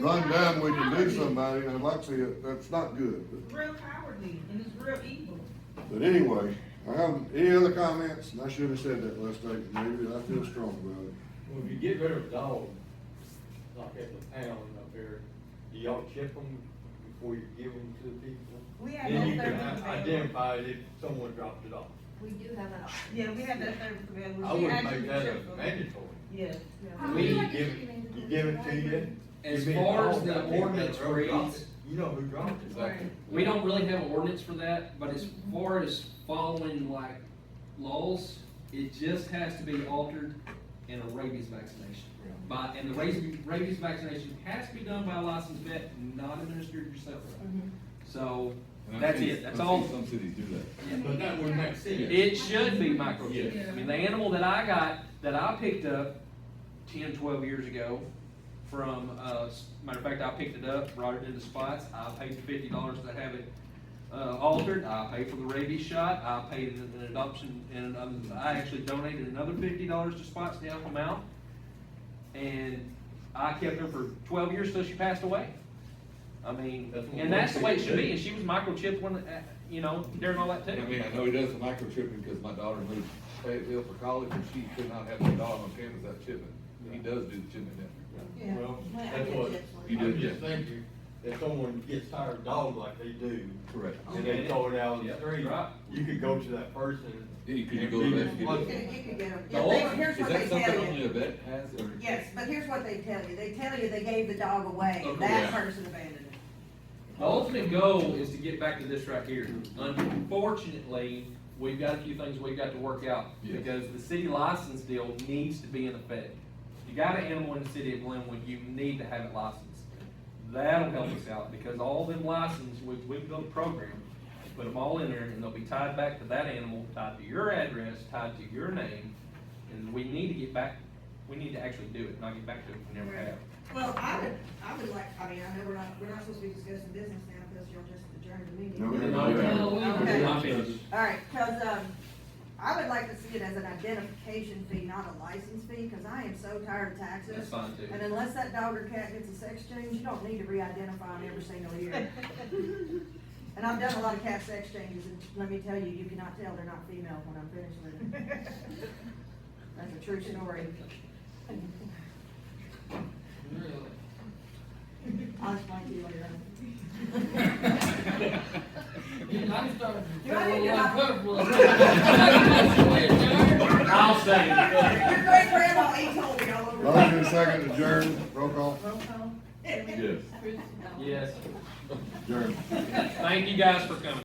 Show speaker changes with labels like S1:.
S1: run down, we can do somebody, and like I say, that's not good. But-
S2: Real cowardly and it's real evil.
S1: But anyway, I have, any other comments? And I should have said that last night, maybe, I feel strong about it.
S3: Well, if you get rid of a dog, like at the pound up there, do y'all chip them before you give them to the people?
S2: We had
S3: Then
S2: no
S3: you can
S2: third
S3: i- identify it if someone dropped it off.
S4: We do have an option.
S2: Yeah, we had that third available.
S3: I
S2: We
S3: wouldn't
S2: actually
S3: make that
S2: checked
S3: a
S2: them.
S3: mandatory.
S2: Yes.
S4: I
S3: We,
S4: feel
S3: you
S4: like it
S3: give,
S4: should be
S3: it- you give it to you.
S5: As
S3: you mean,
S5: far as
S3: oh,
S5: the
S3: that people that
S5: ordinance
S3: wrote it off,
S5: reads-
S3: You know who dropped it.
S2: Right.
S5: We don't really have an ordinance for that, but as far as following like laws, it just has to be altered in a rabies vaccination. By, and the rabies, rabies vaccination has to be done by a licensed vet, not administered yourself. So, that's it, that's all.
S6: Some cities do that.
S3: But that would make sense.
S5: It should be microchipped.
S2: Yeah.
S5: I mean, the animal that I got, that I picked up 10, 12 years ago from, uh, s- matter of fact, I picked it up, brought it into spots. I paid fifty dollars to have it, uh, altered. I paid for the rabies shot. I paid an an adoption and um, I actually donated another fifty dollars to spots to help them out. And I kept her for twelve years till she passed away. I mean,
S3: That's what
S5: and
S3: we
S5: that's the way it
S3: should
S5: should
S3: do.
S5: be. And she was microchipped when, uh, you know, during all that too.
S6: I mean, I know he does the microchipping because my daughter moved to Fayetteville for college and she could not have her dog on campus without chipping. He does do the chipping down
S2: Yeah.
S3: Well,
S4: Well, I
S3: that's
S4: get
S3: what,
S4: that one.
S6: You
S3: I'm
S6: do,
S3: just thinking, if someone gets tired of dogs like they do,
S6: there. Correct.
S3: and they throw it out on the
S5: Yeah,
S3: street,
S5: right.
S3: you could go to that person.
S6: Yeah, you could
S3: and
S6: go
S3: be
S6: to that, you
S3: responsible.
S6: could-
S7: You can get them,
S6: The
S7: yeah, they,
S6: ordinance,
S7: here's what they
S6: Is that
S7: tell
S6: something only a
S7: you.
S6: vet has or?
S7: Yes, but here's what they tell you, they tell you they gave the dog away,
S5: Okay.
S6: Yeah.
S7: that person abandoned it.
S5: The ultimate goal is to get back to this right here. Unfortunately, we've got a few things we've got to work out,
S6: Yes.
S5: because the city license deal needs to be in effect. If You got an animal in the city of Glenwood, you need to have it licensed. That'll help us out, because all them licenses, we, we built a program, put them all in there, and they'll be tied back to that animal, tied to your address, tied to your name, and we need to get back, we need to actually do it, not get back to it, we never have.
S7: Well, I would, I would like, I mean, I know we're not, we're not supposed to be discussing business now, because y'all just adjourned the meeting.
S1: No, we didn't.
S7: Okay.
S5: I'm finished.
S7: All right, cause, um, I would like to see it as an identification fee, not a license fee, cause I am so tired of
S5: That's
S7: taxes.
S5: fine too.
S7: And unless that dog or cat gets a sex change, you don't need to re-identify them every single year. And I've done a lot of cat sex changes, and let me tell you, you cannot tell they're not female when I'm finished with them. That's a true story. I'll explain to you later on.
S8: I'm starting to
S7: Do I
S8: feel a
S7: need to-
S8: little uncomfortable.
S5: I'll say it.
S7: Your great grandma ate Toby all over.
S1: Motion second adjourn, roll call,
S2: Roll call.
S6: Yes.
S5: Yes.
S1: adjourn.
S5: Thank you guys for coming.